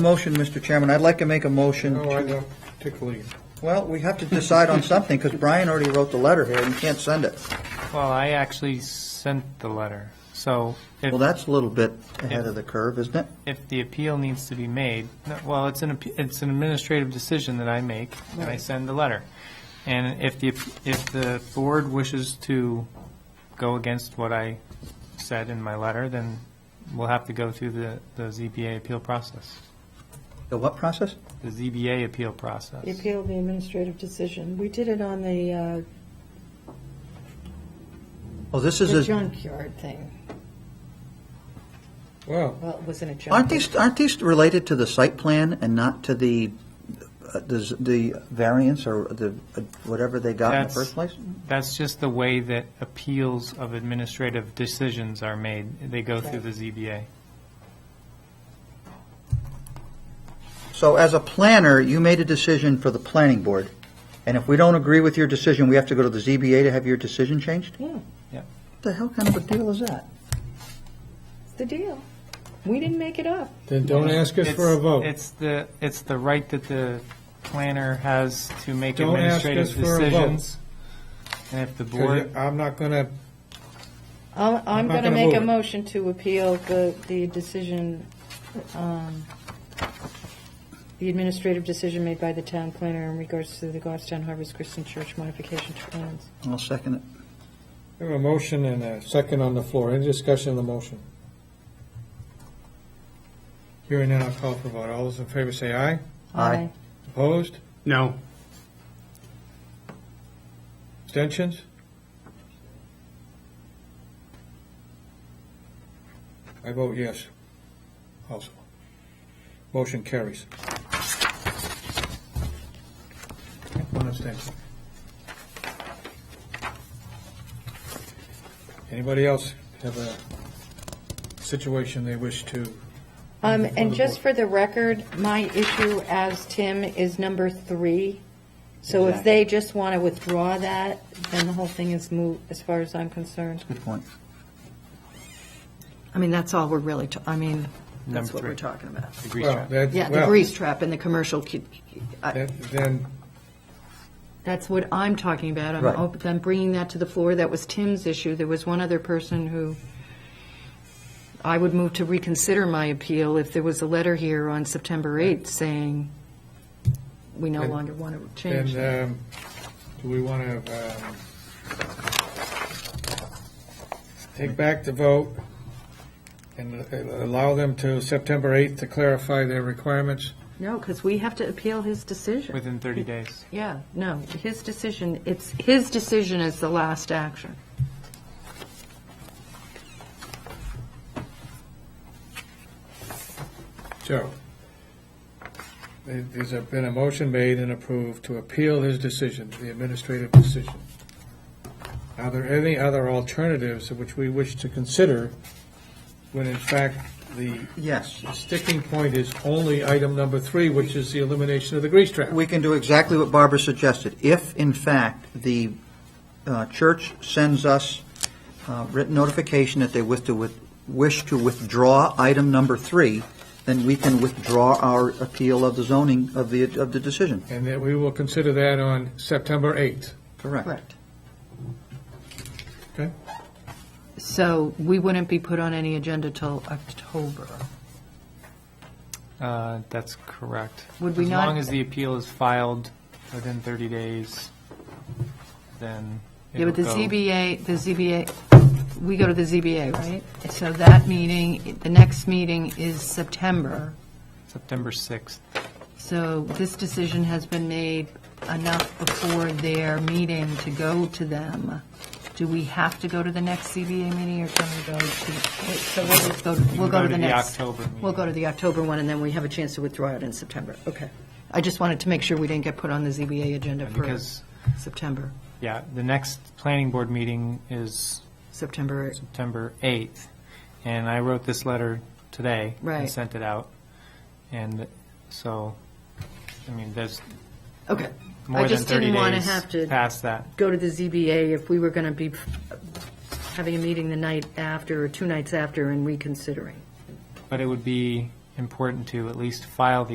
Motion, Mr. Chairman, I'd like to make a motion No, Oh, I to, don't particularly. well, we have to decide on something, because Brian already wrote the letter here, and you can't send it. Well, I actually sent the letter, so if, Well, that's a little bit ahead of the curve, isn't it? if the appeal needs to be made, no, well, it's an, appe- it's an administrative decision that I make, and I send the letter. And if the, if the board wishes to go against what I said in my letter, then we'll have to go through the, the ZBA appeal process, The what process? the ZBA appeal process. The appeal of the administrative decision. We did it on the, uh, Oh, this the is, a- junkyard thing. Well, Well, it wasn't a junkyard. aren't these, aren't these related to the site plan and not to the, uh, the z- the variance or the, uh, whatever they got in the That's- first place? That's just the way that appeals of administrative decisions are made. They go through the ZBA. So as a planner, you made a decision for the planning board, and if we don't agree with your decision, we have to go to the ZBA to have your decision changed? Yeah, What the hell kind of a deal is that? it's the deal. We didn't make it up. then don't ask us for a It's- vote. It's the, it's the right that the planner has to make Don't ask administrative us for a vote. decisions. And if the 'Cause board, I'm not gonna, I'll- I'm I'm not going to gonna make a move it. motion to appeal the, the decision, um, the administrative decision made by the town planner in regards to the Goffstown Harvest Christian Church modification to plans. I'll second it. we have a motion and a second on the floor. Any discussion of the motion? Hearing none, I'll call for a vote. All those in favor say aye. Aye. Opposed? No. Abstentions? I vote yes, also. Motion carries. One abstention. Anybody else have a situation they wish to? Um, and just for the record, my issue as Tim is number three. So if they just want to withdraw that, then the whole thing is moot, as far as I'm concerned. Good point. I mean, that's all we're really, ta- I mean, Number that's what three. we're talking about. the grease Well, trap. that- Yeah, the well, grease trap and the commercial, cu- I- that- Then, that's what I'm talking about. I'm Right. op- I'm bringing that to the floor. That was Tim's issue. There was one other person who, I would move to reconsider my appeal if there was a letter here on September 8th saying, we no And- longer want to change that. then, um, do we want to, um, take back the vote and uh, allow them to September 8th to clarify their requirements? No, because we have to appeal his decision. within 30 days. Yeah, no, his decision, it's, his decision is the last action. So, there- there's a- been a motion made and approved to appeal his decision, the administrative decision. Are there any other alternatives which we wish to consider when in fact the Yes, sticking point is only item number three, which is the elimination of the grease trap? we can do exactly what Barbara suggested. If, in fact, the uh, church sends us uh, written notification that they wish to, with- wish to withdraw item number three, then we can withdraw our appeal of the zoning, of the, of the decision. And that we will consider that on September 8th. Correct. Correct. Okay. So we wouldn't be put on any agenda till October. Uh, That's correct. Would we As long not- as the appeal is filed within 30 days, then Yeah, it'll but the go- ZBA, the ZBA, we go to the ZBA, right? So that meeting, the next meeting is September. September 6th. So this decision has been made enough before their meeting to go to them. Do we have to go to the next ZBA meeting or can we go to, wait, so we'll just go, we'll go to the next. October meeting. We'll go to the October one and then we have a chance to withdraw it in September. Okay. I just wanted to make sure we didn't get put on the ZBA agenda for Because, September, yeah, the next planning board meeting is September eighth. September 8th, and I wrote this letter today. And Right. sent it out, and so, I mean, there's Okay. more than just 30 didn't wanna days have to- past that. Go to the ZBA if we were going to be having a meeting the night after or two nights after and reconsidering. But it would be, important to at least file the